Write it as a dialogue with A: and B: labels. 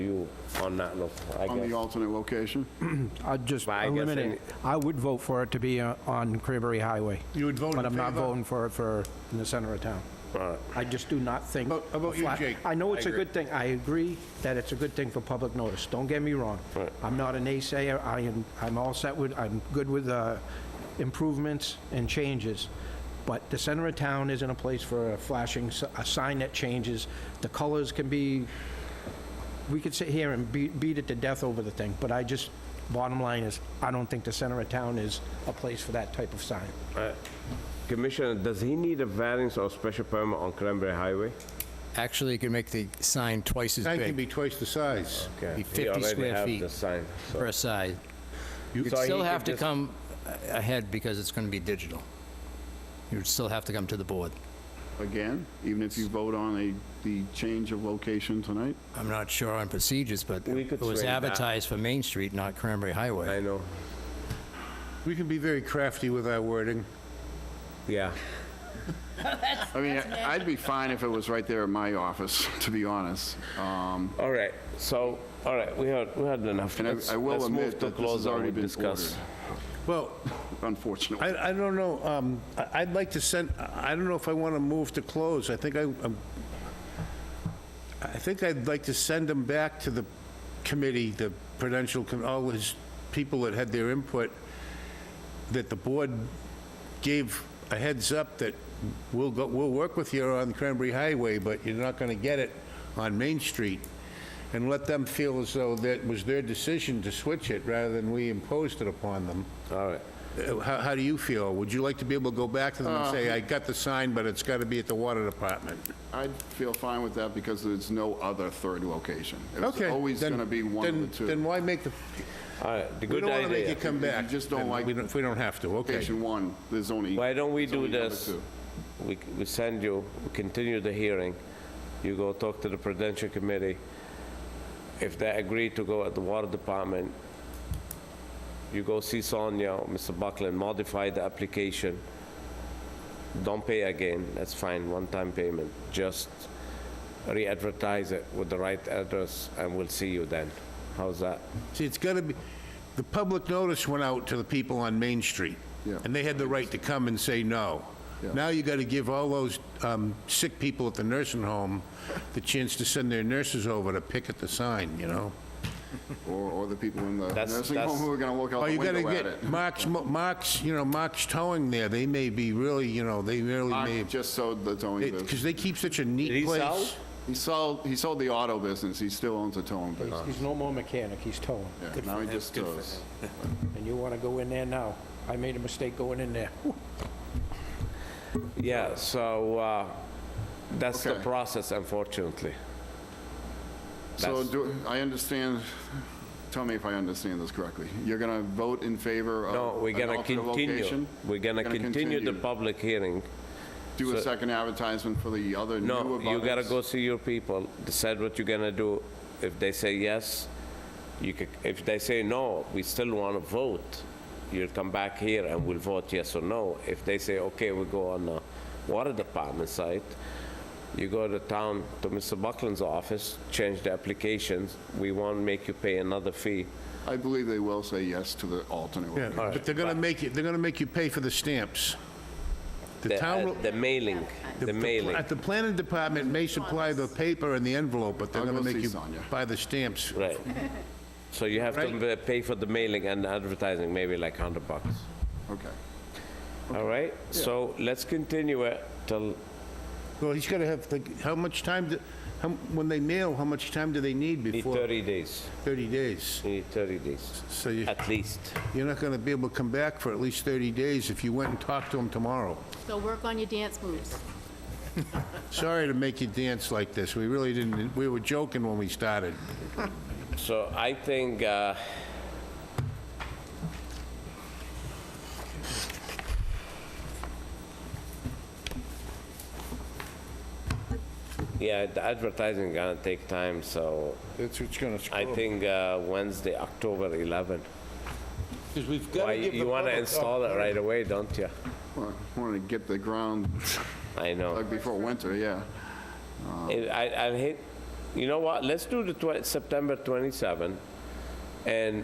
A: you on that, look, I
B: on the
A: guess.
B: alternate location?
C: I'd just
A: Well, I guess
C: eliminate, it. I would vote for it to be uh, on Cranberry Highway.
D: You would vote
C: But
D: in
C: I'm not
D: favor?
C: voting for it for, in the center of town. I just do not think...
D: About- about you,
C: flat-
D: Jake?
C: I know it's
D: I
C: a
D: agree.
C: good thing, I agree that it's a good thing for public notice, don't get me wrong. I'm not a naysayer, I am, I'm all set with, I'm good with uh, improvements and changes, but the center of town isn't a place for a flashing, s- a sign that changes, the colors can be we could sit here and beat, beat it to death over the thing, but I just, bottom line is, I don't think the center of town is a place for that type of sign.
A: Uh, Commissioner, does he need a variance or special permit on Cranberry Highway?
E: Actually, you can make the sign twice as
D: That can
E: big
D: be twice the size.
A: Okay,
E: Be 50
A: He
E: square
A: already
E: feet.
A: have the sign, so-
E: per side. You'd
A: So he
E: still
A: could
E: have to
A: just-
E: come a- ahead because it's going to be digital. You'd still have to come to the board.
B: Again, even if you vote on a, the change of location tonight?
E: I'm not sure on procedures, but
A: We could
E: it was
A: swing that.
E: advertised for Main Street, not Cranberry
A: I
E: Highway.
A: know,
D: We can be very crafty with our wording.
A: yeah.
B: I mean, I'd be fine if it was right there at my office, to be honest. Um,
A: All right, so, all right, we had, we had enough.
B: And I-
A: Let's-
B: I will
A: let's move
B: admit
A: to
B: that this has
A: close and
B: already
A: we
B: been
A: discuss.
D: Well,
B: Unfortunately.
D: I, I don't know, um, I- I'd like to send, I I don't know if I want to move to close. I think I, I'm- I think I'd like to send them back to the committee, the Prudential, Com- all his people that had their input, that the board gave a heads up that we'll go, we'll work with you on Cranberry Highway, but you're not gonna get it on Main Street. And let them feel as though that was their decision to switch it rather than we imposed it upon them.
A: All right,
D: Uh, How, how do you feel? Would you like to be able to go back to them and
B: Uh,
D: say, I got the sign, but it's got to be at the water department?
B: I'd feel fine with that because there's no other third location.
D: Okay.
B: It's always
D: then-
B: going to be one
D: then-
B: of the two.
D: Then why make the,
A: all right, the
D: we
A: good
D: don't want to make
A: idea.
D: it come
B: If you
D: back.
B: just don't
D: then
B: like-
D: we If we don't have to, okay.
B: Location one, there's only.
A: Why don't we
B: there's
A: do
B: only number
A: this?
B: two.
A: We, c- we send you, we continue the hearing, you go talk to the Prudential Committee. If they agree to go at the Water Department, you go see Sonia, or Mr. Buckland, modify the application. Don't pay again, that's fine, one-time payment, just re-advertise it with the right address, and we'll see you then. How's that?
D: See, it's got to be, the public notice went out to the people on Main Street.
B: Yeah.
D: And they had the right to come and say no.
B: Yeah.
D: Now you got to give all those um, sick people at the nursing home the chance to send their nurses over to pick at the sign, you know?
B: Or, or the people in the
A: That's-
B: nursing home
A: that's-
B: who are going to look out
D: Oh,
B: the
D: you gotta
B: window at it.
D: get Mark's, Mo- Mark's, you know, Mark's towing there, they may be really, you know, they really
B: Mark
D: may,
B: Just sold the towing business.
D: because they keep such a neat
A: he
D: place.
A: sell?
B: He sold, he sold the auto business. He still owns a towing business.
C: He's no more mechanic, he's towing.
B: Yeah, Now he just tows.
C: And you want to go in there now. I made a mistake going in there.
A: Yeah, so, uh, that's the
B: Okay.
A: process, unfortunately.
B: So
A: That's-
B: do, I understand, tell me if I understand this correctly. You're going to vote in favor of
A: No, we're
B: an
A: gonna
B: alternate
A: continue.
B: location?
A: We're gonna continue the public hearing.
B: Do a second advertisement for the other new
A: No,
B: abutters?
A: you gotta go see your people, decide what you're gonna do. If they say yes, you could, if they say no, we still wanna vote. You'll come back here and we'll vote yes or no. If they say, okay, we go on the water department site, you go to town, to Mr. Buckland's office, change the applications. We won't make you pay another fee.
B: I believe they will say yes to the alternate
D: Yeah,
B: location.
D: But they're gonna make you, they're gonna make you pay for the stamps. The
A: The
D: town,
A: uh,
D: will-
A: the mailing, the mailing.
D: at the planning department may supply the paper and the envelope, but they're
B: I'll
D: gonna
B: go
D: make
B: see
D: you
B: Sonia.
D: buy the stamps.
A: Right. So you have to
D: Right.
A: pay for the mailing and advertising, maybe like 100 bucks.
B: Okay.
A: All right? So let's continue it till,
D: Well, he's gotta have, the- how much time, do- how- when they mail, how much time do they need
A: need
D: before?
A: 30 days.
D: 30 days.
A: You Need 30 days,
D: So you,
A: at least.
D: you're not gonna be able to come back for at least 30 days if you went and talked to them tomorrow.
F: So work on your dance moves.
D: Sorry to make you dance like this. We really didn't, we were joking when we started.
A: So I think, uh, yeah, the advertising gonna take time, so
D: That's what's gonna screw
A: I think uh, Wednesday, October 11.
D: Because we've
A: Why,
D: gotta give
A: you
D: the
A: wanna
D: public
A: install it right away, don't you?
B: Well, I wanted to get the ground
A: I know.
D: um,
B: dug before winter, yeah.
A: I, I I hate, You know what, let's do the twen- September 27, and